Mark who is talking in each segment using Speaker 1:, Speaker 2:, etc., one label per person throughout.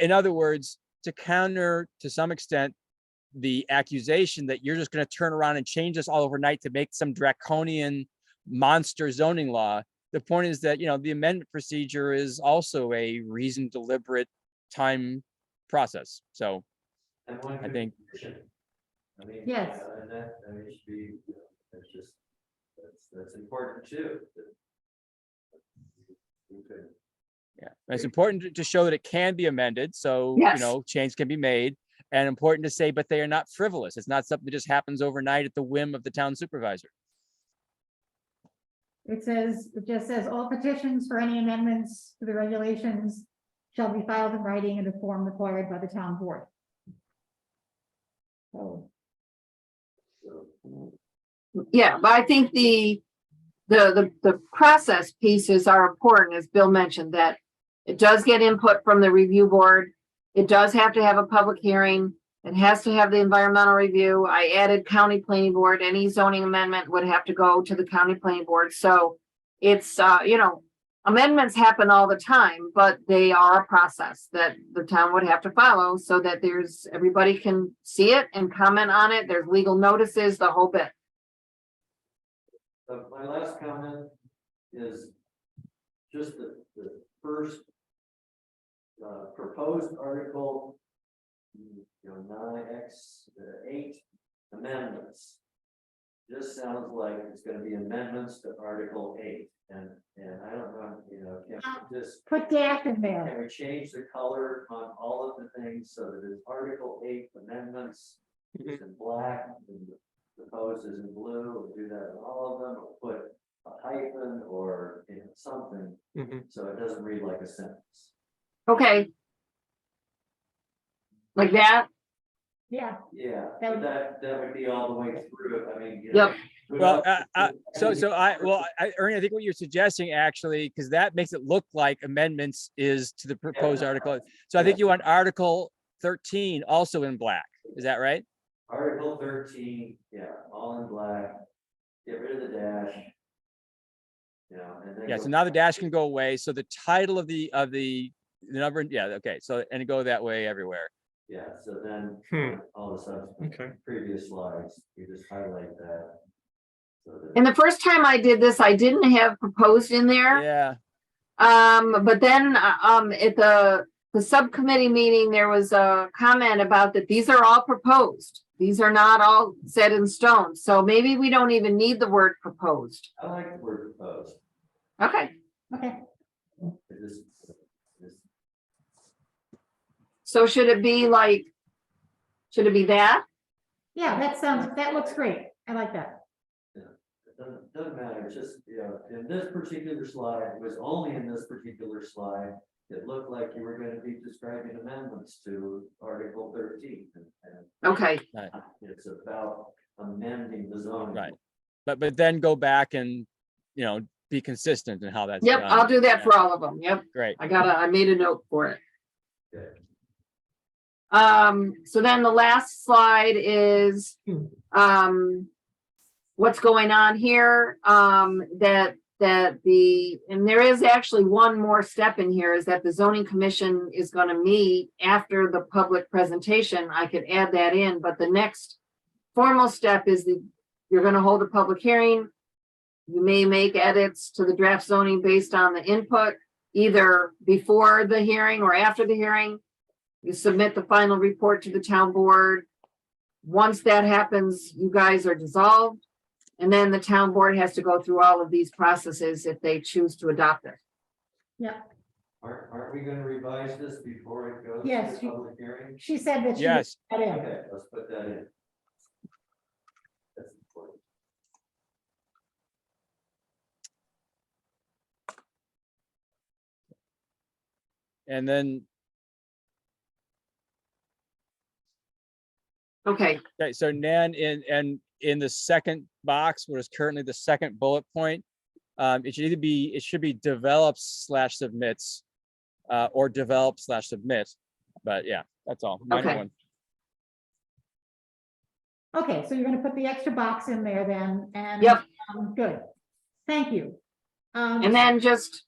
Speaker 1: in other words, to counter to some extent the accusation that you're just going to turn around and change this all overnight to make some draconian monster zoning law. The point is that, you know, the amendment procedure is also a reasoned deliberate time process. So
Speaker 2: And one
Speaker 1: I
Speaker 2: could
Speaker 1: think-
Speaker 2: petition. I mean,
Speaker 3: Yes.
Speaker 2: uh, And that, I mean, it should be, you know, that's just, that's, that's important too. that- You could,
Speaker 1: Yeah, and it's important to- to show that it can be amended, so, you
Speaker 3: Yes.
Speaker 1: know, change can be made. And important to say, but they are not frivolous. It's not something that just happens overnight at the whim of the town supervisor.
Speaker 3: It says, it just says, all petitions for any amendments to the regulations shall be filed in writing in the form required by the town board. So,
Speaker 2: so,
Speaker 4: Yeah, but I think the, the, the, the process pieces are important, as Bill mentioned, that it does get input from the review board. It does have to have a public hearing. It has to have the environmental review. I added county planning board. Any zoning amendment would have to go to the county planning board. So it's, uh, you know, amendments happen all the time, but they are a process that the town would have to follow so that there's, everybody can see it and comment on it. There's legal notices, the whole bit.
Speaker 2: but my last comment is just the, the first uh, proposed article, you know, nine X, uh, eight amendments. Just sounds like it's gonna be amendments to Article eight, and, and I don't know, you know, can we just
Speaker 3: put dash in there,
Speaker 2: Can we change the color on all of the things so that it's Article eight amendments
Speaker 1: Mhm.
Speaker 2: is in black and the proposed is in blue, we do that in all of them, or put a hyphen or, you know, something, so it doesn't read like a sentence.
Speaker 4: Okay. Like that,
Speaker 3: yeah,
Speaker 2: Yeah,
Speaker 3: That would-
Speaker 2: that, that would be all the way through, I mean, you know.
Speaker 4: yep,
Speaker 2: we
Speaker 1: Well,
Speaker 2: don't-
Speaker 1: uh, uh, so, so I, well, I, Ernie, I think what you're suggesting actually, because that makes it look like amendments is to the proposed article. So I think you want Article thirteen also in black. Is that right?
Speaker 2: Article thirteen, yeah, all in black, get rid of the dash. You know, and then.
Speaker 1: Yeah,
Speaker 2: go
Speaker 1: so now the
Speaker 2: back.
Speaker 1: dash can go away. So the title of the, of the, the number, yeah, okay, so, and go that way everywhere.
Speaker 2: Yeah, so then
Speaker 5: Hmm.
Speaker 2: uh, all the subsequent
Speaker 5: Okay.
Speaker 2: previous slides, you just highlight that. So that,
Speaker 4: and the first time I did this, I didn't have proposed in there,
Speaker 1: Yeah,
Speaker 4: um, but then, uh, um, at the, the subcommittee meeting, there was a comment about that these are all proposed. These are not all set in stone, so maybe we don't even need the word proposed,
Speaker 2: I like the word proposed,
Speaker 4: okay?
Speaker 3: okay,
Speaker 2: it just, just,
Speaker 4: So should it be like, should it be that?
Speaker 3: yeah, that sounds, that looks great, I like that.
Speaker 2: it doesn't, doesn't matter, it's just, you know, in this particular slide, it was only in this particular slide. It looked like you were gonna be describing amendments to Article thirteen, and, and
Speaker 4: Okay,
Speaker 2: it's about amending the zoning.
Speaker 1: Right. but, but then go back and, you know, be consistent in how that's
Speaker 4: yep, I'll
Speaker 1: done.
Speaker 4: do that for all of them, yep.
Speaker 1: Great.
Speaker 4: I gotta, I made a note for it.
Speaker 2: Good.
Speaker 4: Um, so then the last slide is, um, what's going on here, um, that, that the, and there is actually one more step in here is that the zoning commission is gonna meet after the public presentation. I could add that in, but the next formal step is the, you're gonna hold a public hearing. You may make edits to the draft zoning based on the input either before the hearing or after the hearing. You submit the final report to the town board. Once that happens, you guys are dissolved. And then the town board has to go through all of these processes if they choose to adopt it.
Speaker 2: Aren't, aren't we gonna revise this before it goes
Speaker 3: Yes,
Speaker 2: to
Speaker 3: you-
Speaker 2: the public hearing?
Speaker 3: She said that she
Speaker 1: Yes,
Speaker 3: put that in,
Speaker 2: Okay, let's put that in. That's important.
Speaker 1: and then,
Speaker 4: Okay,
Speaker 1: okay, so Nan, in, and in the second box, what is currently the second bullet point, um, it should either be, it should be develops slash submits, uh, or develop slash submit, but yeah, that's all. Minor
Speaker 4: Okay.
Speaker 1: one.
Speaker 3: okay, so you're gonna put the extra box in there then, and.
Speaker 4: Yep.
Speaker 3: um, Good, thank you. Um,
Speaker 4: and then just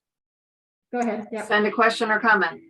Speaker 3: Go ahead, yeah,
Speaker 4: send a question or comment.